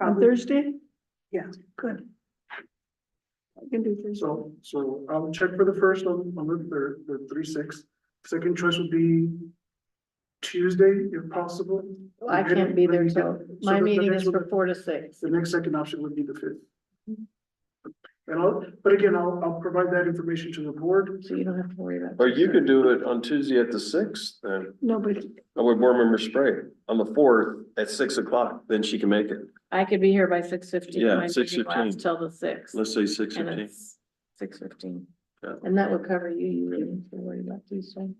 On Probably, Thursday? Yeah. Good. I can do Thursday. So, so I'll check for the first on, on the third, the three six. Second choice would be Tuesday if possible. I can't be there, So so my the- the meeting next is for one- four to six. The next second option would be the fifth. Mm-hmm. And I'll, but again, I'll, I'll provide that information to the board. So you don't have to worry about. Or you could do it on Tuesday at the sixth, then, No, but or with board member Spray, on the fourth at six o'clock, then she can make it. I could be here by six fifteen. Yeah, 6:15. Till the six. Let's say six And fifteen. it's six fifteen. Yeah. And that would cover you. You really don't have to worry about these things.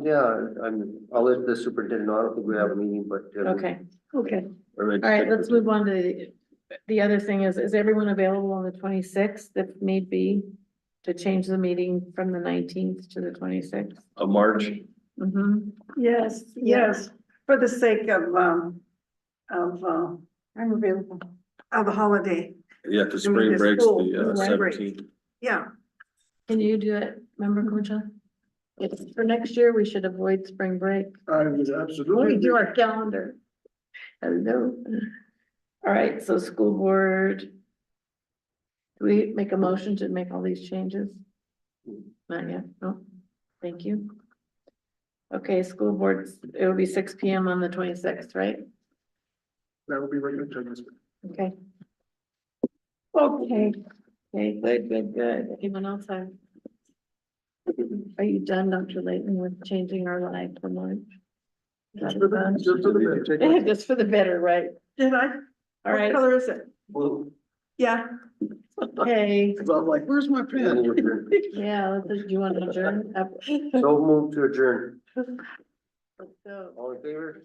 Yeah, I'm, I'll let the superintendent, know. I don't think we have a meeting, but. uh, Okay, okay, all right, let's move on to, the- the other thing is, is everyone available on the twenty-sixth if need be? To change the meeting from the nineteenth to the twenty-sixth? A March, Mm-hmm. yes, yes. yes, for the sake of, um, of, uh, I'm available. of the holiday, yeah, cause I mean, spring it's breaks school, the uh, right, break. seventeenth. yeah. Can you do it, member Kuncha? It's for next year, we should avoid spring break. I would Let me absolutely. do our calendar. Hello. All right, so school board. Do we make a motion to make all these changes? Not yet, no, thank you. Okay, school boards, it will be six P M on the twenty-sixth, right? That would be regular attendance. Okay. Okay, okay, good, good, good. Anyone else have? Are you done, Dr. Layton, with changing our life for lunch? Just for the- just for the- Just for the better, right? Did I? All right, What color is it? Well, Yeah, okay, Cause I'm like, where's my then pen? we're adjourned. yeah, let's just- do you want to adjourn? Up- So move to adjourn. So- All in favor?